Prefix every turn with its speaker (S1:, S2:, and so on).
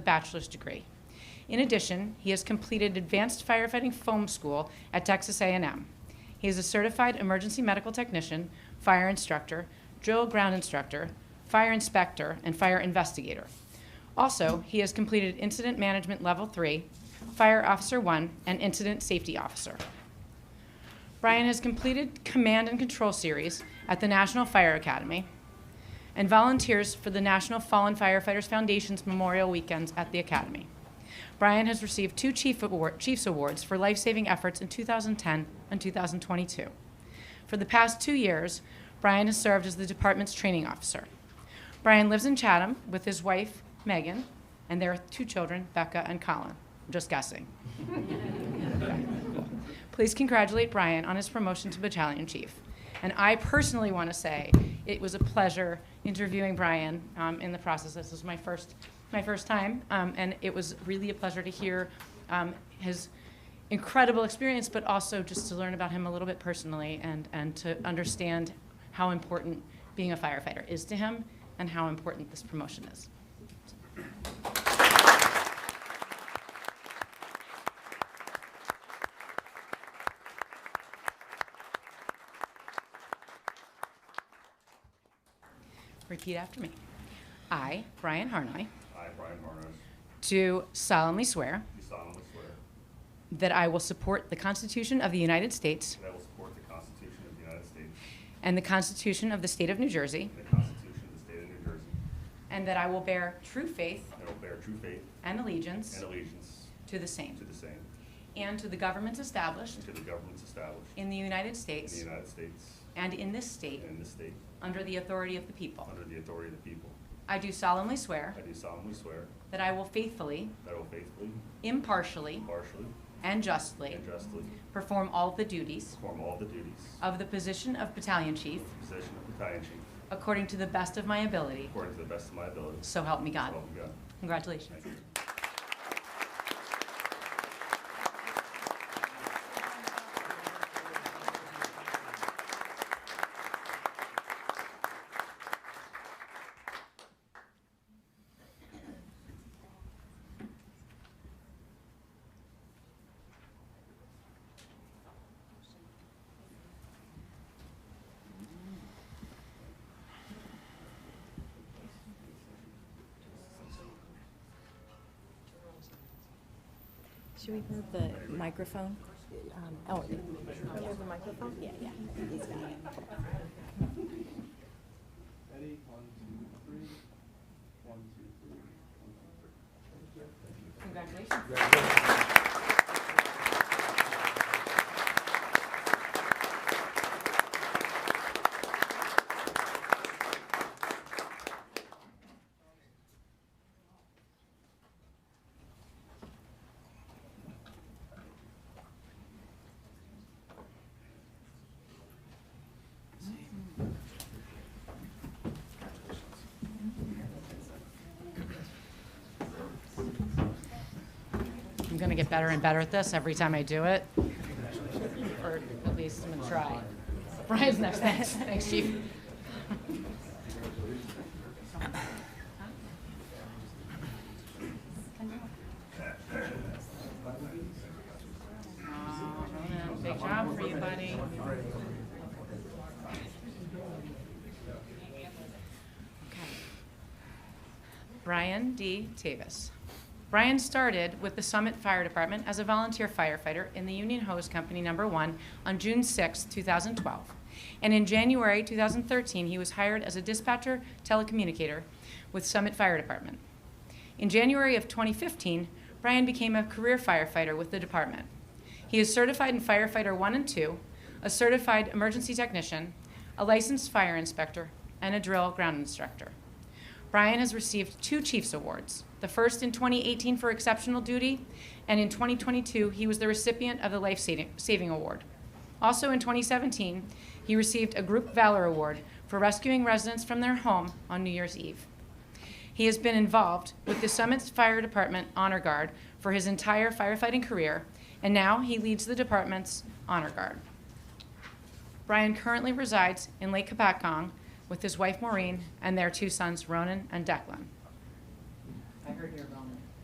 S1: a bachelor's degree. In addition, he has completed advanced firefighting foam school at Texas A&M. He is a certified emergency medical technician, fire instructor, drill ground instructor, fire inspector, and fire investigator. Also, he has completed incident management level 3, fire officer 1, and incident safety officer. Brian has completed command and control series at the National Fire Academy and volunteers for the National Fallen Firefighters Foundation's Memorial Weekends at the Academy. Brian has received two Chief Award, Chiefs Awards for life-saving efforts in 2010 and 2022. For the past two years, Brian has served as the department's training officer. Brian lives in Chatham with his wife, Megan, and their two children, Becca and Colin. I'm just guessing. Please congratulate Brian on his promotion to battalion chief. And I personally want to say it was a pleasure interviewing Brian um, in the process. This was my first, my first time, um, and it was really a pleasure to hear um, his incredible experience, but also just to learn about him a little bit personally and, and to understand how important being a firefighter is to him and how important this promotion is. Repeat after me. I, Brian Harnoy,
S2: I, Brian Harness,
S1: do solemnly swear
S2: do solemnly swear
S1: that I will support the Constitution of the United States
S2: that I will support the Constitution of the United States
S1: and the Constitution of the State of New Jersey,
S2: and the Constitution of the State of New Jersey,
S1: and that I will bear true faith
S2: and will bear true faith
S1: and allegiance
S2: and allegiance
S1: to the
S2: to
S1: same
S2: the same
S1: and to the governments established
S2: and to the governments established
S1: in the United
S2: in the
S1: States
S2: United States
S1: and in this state
S2: and in this state,
S1: under the authority of the people.
S2: under the authority of the people.
S1: I do solemnly swear
S2: I do solemnly swear
S1: that I will faithfully,
S2: that I will faithfully,
S1: impartially,
S2: impartially,
S1: and justly
S2: and justly
S1: perform all the duties
S2: perform all the duties
S1: of the position of battalion chief
S2: of the position of battalion chief
S1: according to the best of my ability.
S2: according to the best of my ability. So
S1: So help me God.
S2: help me God.
S1: Congratulations.
S2: Thank you.
S3: Should we move the microphone? Um, Oh, move the microphone? Yeah, yeah. he's got it.
S4: Ready, one, two, three. One, two, three. One, two, three.
S1: Congratulations. I'm going to get better and better at this every time I do it. Or at least I'm going to try. Brian's next. Thanks, Thanks, Chief. Big job for you, buddy. Okay. Brian D. Tavis. Brian started with the Summit Fire Department as a volunteer firefighter in the Union Hose Company Number One on June 6, 2012. And in January 2013, he was hired as a dispatcher telecommunicator with Summit Fire Department. In January of 2015, Brian became a career firefighter with the department. He is certified in firefighter 1 and 2, a certified emergency technician, a licensed fire inspector, and a drill ground instructor. Brian has received two Chiefs Awards, the first in 2018 for exceptional duty, and in 2022, he was the recipient of the Life Saving Saving Award. Also in 2017, he received a Group Valor Award for rescuing residents from their home on New Year's Eve. He has been involved with the Summit's Fire Department Honor Guard for his entire firefighting career, and now he leads the department's Honor Guard. Brian currently resides in Lake Kapakong with his wife Maureen and their two sons, Ronan and Declan. I heard you're Ronan.